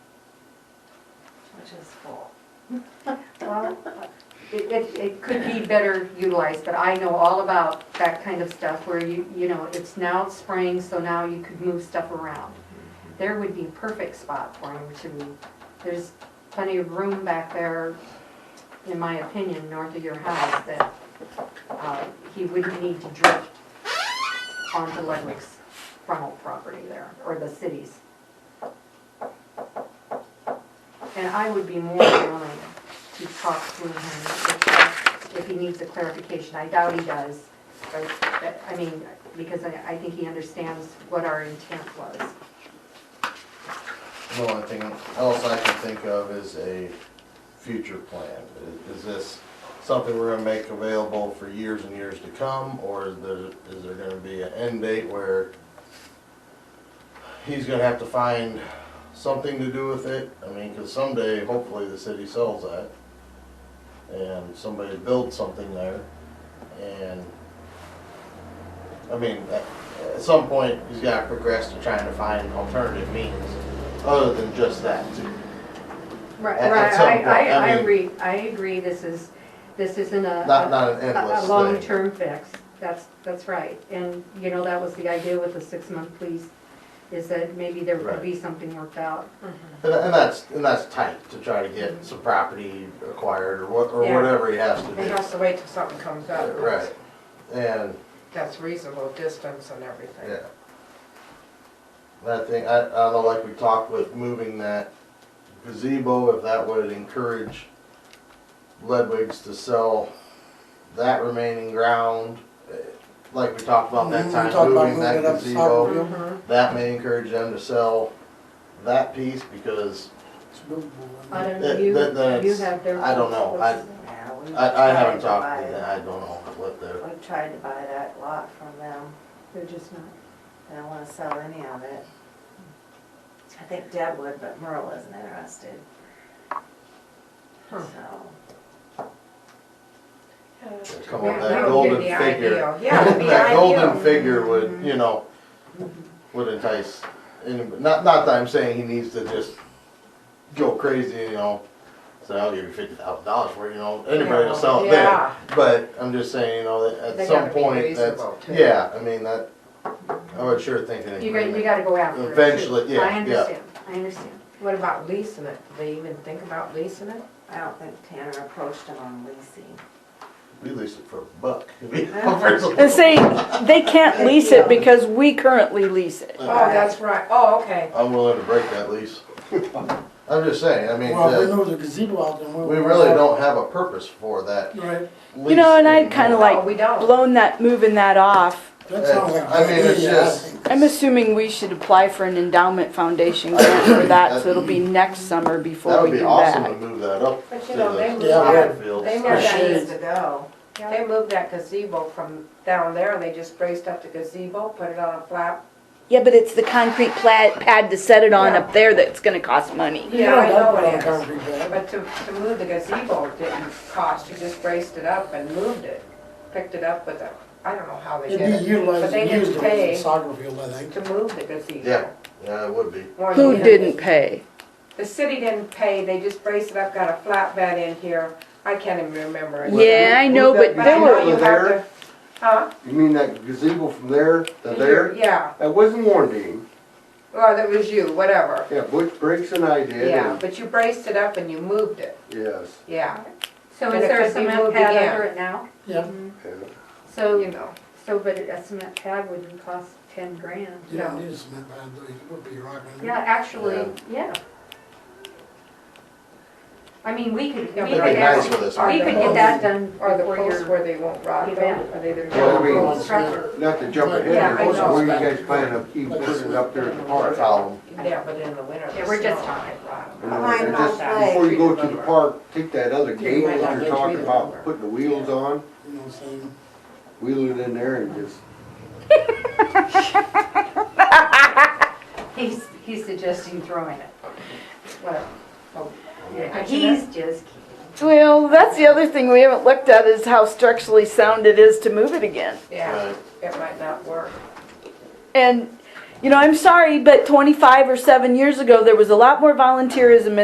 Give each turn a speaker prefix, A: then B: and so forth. A: which is full.
B: Well, it, it, it could be better utilized, but I know all about that kind of stuff where you, you know, it's now spring, so now you could move stuff around. There would be a perfect spot for him to move. There's plenty of room back there, in my opinion, north of your house that, uh, he wouldn't need to drift onto Ludwig's frontal property there, or the city's. And I would be more than willing to talk to him if- if he needs a clarification. I doubt he does, but, but, I mean, because I, I think he understands what our intent was.
C: The only thing else I can think of is a future plan. Is- Is this something we're gonna make available for years and years to come, or is there, is there gonna be an end date where he's gonna have to find something to do with it? I mean, cause someday, hopefully, the city sells that, and somebody builds something there, and, I mean, at, at some point, he's gotta progress to trying to find alternative means other than just that too.
B: Right,
C: At- at some
B: I,
C: point,
B: I, I
C: I mean-
B: agree, I agree, this is, this isn't a.
C: Not, not an
B: a-
C: endless
B: A
C: thing.
B: long-term fix, that's, that's right. And, you know, that was the idea with the six-month lease, is that maybe there could
C: Right.
B: be something worked out.
C: And, and that's, and that's tight to try to get some property acquired or what, or
B: Yeah.
C: whatever he has to
A: He
C: do.
A: has to wait till something comes up.
C: Right, and,
A: That's reasonable distance and everything.
C: yeah. That thing, I, I don't know, like we talked with moving that gazebo, if that would encourage Ledwig's to sell that remaining ground, eh, like we talked about that
D: Mm-hmm. We
C: time,
D: talked about
C: moving that
D: moving it up
C: gazebo.
D: south.
A: Mhm.
C: That may encourage them to sell that piece because
D: It's doable.
B: I
D: I mean,
B: don't know,
C: That-
B: you,
C: that- that's-
B: you have their.
C: I don't know. I-
E: Yeah, we
C: I, I haven't
E: tried to
C: talked to
E: buy
C: them, I don't know what they're,
E: it. We tried to buy that lot from them,
B: They're just not.
E: they don't wanna sell any of it. I think Deb would, but Merle isn't interested. So,
A: Hmm.
C: come on,
B: Yeah,
C: that
B: that would
C: golden
A: be the
C: figure.
A: ideal. Yeah, it'd be
C: That golden
A: ideal.
C: figure
B: Mm-hmm.
C: would, you know, would entice anybody, not, not that I'm saying he needs to just go crazy, you know, say, I'll give you fifty thousand dollars for it, you know, anybody will sell it then.
A: Yeah,
C: But I'm just saying, you know, that
A: They
C: at some
A: gotta be
C: point, that's,
A: reasonable, too.
C: yeah, I mean, that, I would sure think an
B: You got, you
C: agreement.
B: gotta go after it. too.
C: Eventually, yeah,
B: I
C: yeah.
B: understand, I understand.
A: what about leasing it? Do they even think about leasing it?
E: I don't think Tanner approached him on leasing.
C: We leased it for a buck. And
F: And say, they can't lease it because we currently lease it.
A: Oh, that's right, oh, okay.
C: I'm willing to break that lease. I'm just saying, I mean,
D: Well, if
C: that-
D: we know there's a gazebo out there.
C: we really don't have a purpose for that
D: Right,
C: lease.
F: You know, and I kind
C: anymore.
F: of
A: No, Oh, we
F: like
A: don't.
F: blown that, moving that off.
D: that sounds like.
C: I mean, it's
D: Yeah, I
C: just-
D: think
F: I'm assuming we should apply for an endowment foundation grant for that, so it'll be next summer
C: That
F: before we
C: would
F: do
C: be awesome to
F: that.
C: move that up to
A: But
C: the
A: you know, they moved
D: Yeah.
C: soccer
A: that,
C: fields.
A: they moved
C: for
A: that,
D: Appreciate
E: Years
D: it.
E: ago,
A: they moved that gazebo from down there and they just braced up the gazebo, put it on a flat.
F: Yeah, but it's the concrete pla- pad to set it on up there that's gonna cost money.
A: Yeah, I
D: You don't
A: know
D: dump it on
A: it is.
D: concrete pad.
A: But to, to move the gazebo didn't cost, you just braced it up and moved it, picked it up with a, I don't know how they did
D: It'd be
A: it, but
D: utilized
A: they
D: and used
A: didn't
D: as a
A: pay
D: soccer field, I think.
A: to move the gazebo.
C: Yeah, yeah, it would be.
A: More
F: Who
A: than-
F: didn't pay?
A: The city didn't pay, they just braced it up, got a flatbed in here, I can't even remember it.
F: Yeah, I know, but
A: But I
F: there
A: know
F: were,
A: you have to, huh?
G: You mean that gazebo from there to there?
A: Yeah,
G: That wasn't Warren
A: well, that was you, whatever,
G: Yeah, Butch Briggs and I did.
A: yeah,
G: and-
A: but you braced it up and you moved it,
G: Yes.
A: yeah,
B: So
A: But
B: is
A: it
B: there
A: could
B: a
A: be
B: cement
A: moved
B: pad
A: again.
B: under it now?
D: Yeah,
B: Mm-hmm.
G: yeah.
A: you
B: So,
A: know.
B: so, but a cement pad wouldn't cost ten grand.
D: you don't
A: Yeah.
D: need a cement pad, though, it would be rocking.
B: Yeah, actually, yeah. I mean, we
A: Yeah,
B: could, we could
A: but
C: It'd be nice
B: actually,
C: with us.
B: we could get that done
A: Or the
B: before
A: posts
B: your,
A: where they won't rot though,
B: event.
A: are they the?
G: Well, I mean-
B: Structure.
G: Not to jump ahead,
B: Yeah,
G: here,
B: I know.
G: where you guys plan to keep putting it up there at the
C: Or
G: park?
C: tell
A: Yeah, but in the winter.
B: Yeah, we're just
A: on
B: on
A: it.
G: You
A: rot.
G: know,
E: Behind
G: and
E: my
G: just
E: place.
G: Before you go to the park, take that other gate
D: might not
G: that
D: let
G: you're
D: you
G: talking
D: in
G: about,
D: there.
G: putting the wheels on,
D: You know what I'm saying?
G: wheel it in there and just,
B: he's, he's suggesting throwing it. Well,
C: Oh,
A: Yeah.
B: he's just kidding.
F: Well, that's the other thing we haven't looked at is how structurally sound it is to move it again.
A: Yeah, it might not work.
F: And, you know, I'm sorry, but 25 or 7 years ago, there was a lot more volunteerism in